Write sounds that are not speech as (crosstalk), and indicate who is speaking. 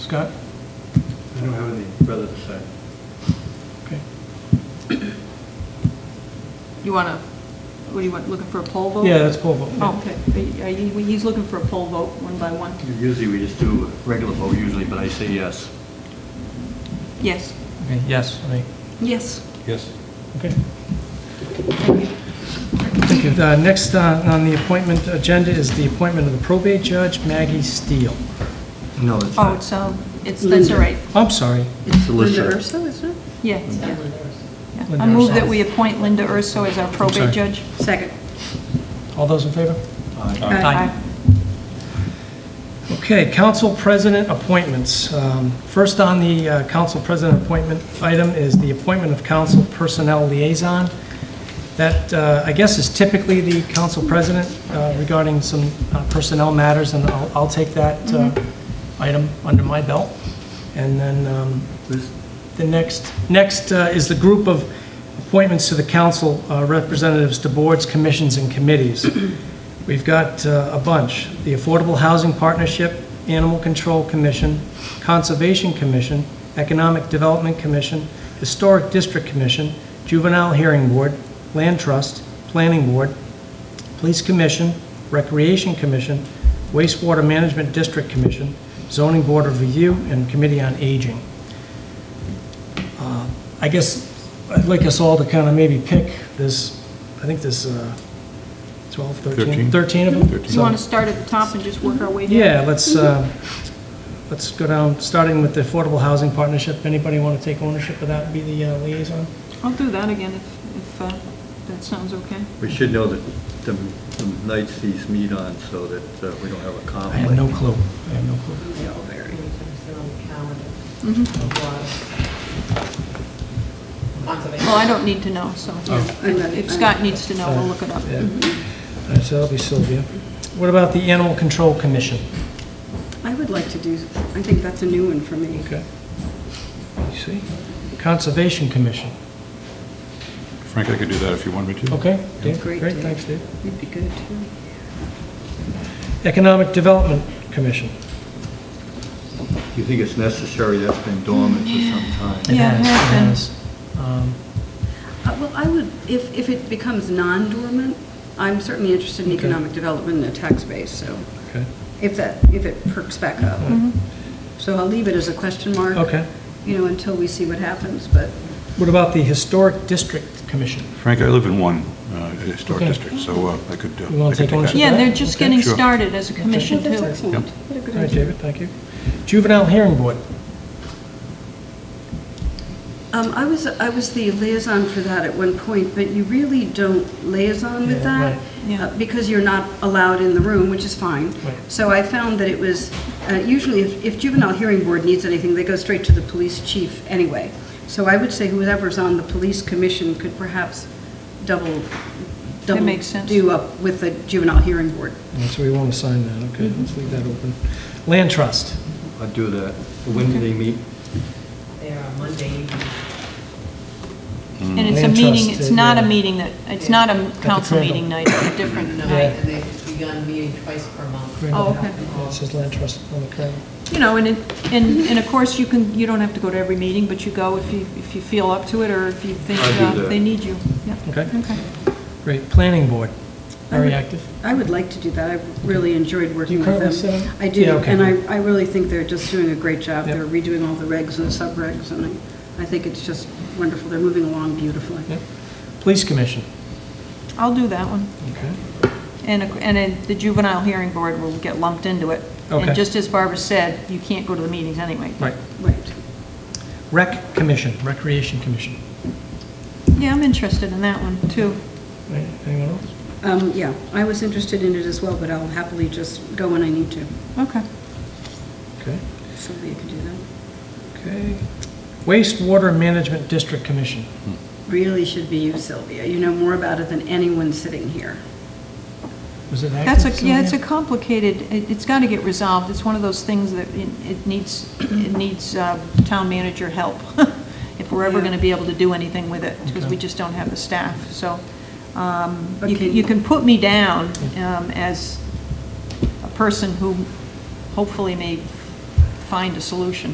Speaker 1: Scott?
Speaker 2: I don't have any further to say.
Speaker 1: Okay.
Speaker 3: You want to, what do you want, looking for a poll vote?
Speaker 1: Yeah, that's poll vote.
Speaker 3: Oh, Okay, Are you- are you- he's looking for a poll vote, one by one.
Speaker 2: Usually we just do a regular vote usually, but I say yes.
Speaker 3: Yes,
Speaker 1: Okay, yes, I mean,
Speaker 3: yes.
Speaker 2: Yes.
Speaker 1: okay. Thank you. The next uh, on the appointment agenda is the appointment of the probate judge, Maggie Steele.
Speaker 2: No, it's
Speaker 3: Oh,
Speaker 2: not.
Speaker 3: it's, um, it's, that's all right,
Speaker 1: I'm sorry.
Speaker 2: It's the
Speaker 4: Linda
Speaker 2: listener.
Speaker 4: Urso, isn't it?
Speaker 3: yeah. yeah. Yeah. I
Speaker 1: Linda
Speaker 3: move
Speaker 1: Urso.
Speaker 3: that we appoint Linda Urso as our
Speaker 1: sorry.
Speaker 3: probate judge.
Speaker 4: Second.
Speaker 1: All those in favor? Uh,
Speaker 2: Aye.
Speaker 4: Aye.
Speaker 1: Okay, council president appointments. Um, First on the uh, council president appointment item is the appointment of council personnel liaison. That, uh, I guess, is typically the council president uh, regarding some uh, personnel matters, and I'll I'll take that uh, item under my belt. And then um,
Speaker 2: Liz?
Speaker 1: the next, next uh, is the group of appointments to the council uh, representatives to boards, commissions, and committees. (clears throat) We've got uh, a bunch. The Affordable Housing Partnership, Animal Control Commission, Conservation Commission, Economic Development Commission, Historic District Commission, Juvenile Hearing Board, Land Trust, Planning Board, Police Commission, Recreation Commission, Wastewater Management District Commission, Zoning Board of Review, and Committee on Aging. Uh, I guess I'd like us all to kind of maybe pick this, I think this uh, 12, 13,
Speaker 5: Thirteen.
Speaker 1: 13 of them?
Speaker 3: So you want to start at the top and just work our way down?
Speaker 1: Yeah, let's, uh, let's go down, starting with the Affordable Housing Partnership. Anybody want to take ownership of that and be the uh, liaison?
Speaker 3: I'll do that again if, if uh, that sounds okay.
Speaker 2: We should know that the the nights these meet on so that uh, we don't have a
Speaker 1: I
Speaker 2: conflict.
Speaker 1: have no clue. I have no clue. Mm-hmm.
Speaker 3: Well, I don't need to know, so
Speaker 4: I'm not-
Speaker 3: if Scott needs to know, we'll look it up.
Speaker 1: Oh. Yeah. All right, so that'll be Sylvia. What about the Animal Control Commission?
Speaker 4: I would like to do, I think that's a new one for me.
Speaker 1: Okay. You see? Conservation Commission.
Speaker 5: Frank, I could do that if you want me to.
Speaker 1: Okay, Dave?
Speaker 4: Great,
Speaker 1: Great,
Speaker 4: Dave.
Speaker 1: thanks, Dave.
Speaker 4: You'd be good, too.
Speaker 1: Economic Development Commission.
Speaker 2: Do you think it's necessary? That's been dormant for some time.
Speaker 1: It
Speaker 3: Yeah, it
Speaker 1: has,
Speaker 3: has been.
Speaker 1: has. Um,
Speaker 4: Uh, Well, I would, if, if it becomes non-dormant, I'm certainly interested in
Speaker 1: Okay.
Speaker 4: economic development and the tax base, so
Speaker 1: Okay.
Speaker 4: if that, if it perks back up. So I'll leave it as a question mark.
Speaker 1: Mm-hmm. Okay.
Speaker 4: You know, until we see what happens, but
Speaker 1: What about the Historic District Commission?
Speaker 5: Frank, I live in one uh, historic
Speaker 1: Okay.
Speaker 5: district, so uh, I could. uh,
Speaker 1: You wanna
Speaker 5: I could
Speaker 1: take ownership?
Speaker 5: that.
Speaker 3: Yeah, they're just
Speaker 1: Okay.
Speaker 3: getting
Speaker 5: Sure.
Speaker 3: started as a commission,
Speaker 4: Well, that's
Speaker 3: too.
Speaker 4: excellent. What a good
Speaker 1: All right,
Speaker 4: idea.
Speaker 1: David, thank you. Juvenile Hearing Board.
Speaker 4: Um, I was, I was the liaison for that at one point, but you really don't liaison with
Speaker 1: Yeah,
Speaker 4: that
Speaker 1: right.
Speaker 3: Yeah.
Speaker 4: uh, because you're not allowed in the room, which is fine.
Speaker 1: Right.
Speaker 4: So I found that it was, uh, usually if if juvenile hearing board needs anything, they go straight to the police chief anyway. So I would say whoever's on the police commission could perhaps double, double
Speaker 3: makes sense.
Speaker 4: do up with the juvenile hearing board.
Speaker 1: Yeah, So we won't assign that, okay, let's leave that open. Land Trust,
Speaker 2: I'd do that. When do they meet?
Speaker 6: They are Monday evening.
Speaker 3: And it's a
Speaker 1: Land
Speaker 3: meeting,
Speaker 1: trust,
Speaker 3: it's
Speaker 1: uh,
Speaker 3: not a
Speaker 1: yeah.
Speaker 3: meeting that, it's not a council
Speaker 1: Crandall.
Speaker 3: meeting night, it's a different
Speaker 6: And
Speaker 1: Yeah.
Speaker 3: night.
Speaker 6: I- they've begun meeting twice per month.
Speaker 1: Right. Oh,
Speaker 3: okay.
Speaker 1: it says Land Trust on the card.
Speaker 3: You know, and, it- and, and of course, you can, you don't have to go to every meeting, but you go if you, if you feel up to it, or if you think
Speaker 2: I'll do
Speaker 3: uh,
Speaker 2: that.
Speaker 3: they need you. Yeah,
Speaker 1: Okay,
Speaker 3: okay.
Speaker 1: great, Planning Board,
Speaker 3: Uh-huh.
Speaker 1: very active.
Speaker 4: I would like to do that. I really enjoyed working with them.
Speaker 1: currently sit on-
Speaker 4: I
Speaker 1: Yeah,
Speaker 4: do,
Speaker 1: okay.
Speaker 4: and I, I really think they're just doing a great job.
Speaker 1: Yep.
Speaker 4: They're redoing all the regs and subregs, and I, I think it's just wonderful. They're moving along beautifully.
Speaker 1: Yep. Police Commission,
Speaker 3: I'll do that one.
Speaker 1: okay,
Speaker 3: And, a- and a- the juvenile hearing board will get lumped into it.
Speaker 1: Okay.
Speaker 3: And just as Barbara said, you can't go to the meetings anyway.
Speaker 1: right.
Speaker 4: Right.
Speaker 1: Rec Commission, Recreation Commission,
Speaker 3: Yeah, I'm interested in that one, too.
Speaker 1: Right, anyone else?
Speaker 4: Um, yeah, I was interested in it as well, but I'll happily just go when I need to.
Speaker 3: Okay.
Speaker 1: Okay,
Speaker 4: Sylvia can do that.
Speaker 1: okay. Wastewater Management District Commission,
Speaker 5: Hmm.
Speaker 4: Really should be you, Sylvia. You know more about it than anyone sitting here.
Speaker 1: was it active?
Speaker 3: That's a, yeah, it's a
Speaker 1: Sylvia?
Speaker 3: complicated, it- it's got to get resolved. It's one of those things that it it needs, it needs uh, town manager help, (laughs) if we're ever
Speaker 4: Yeah.
Speaker 3: going to be able to do anything with it, because
Speaker 1: Okay.
Speaker 3: we just don't have the staff. So um, you
Speaker 4: But
Speaker 3: can,
Speaker 4: can-
Speaker 3: you can put me down um, as a person who hopefully may find a solution.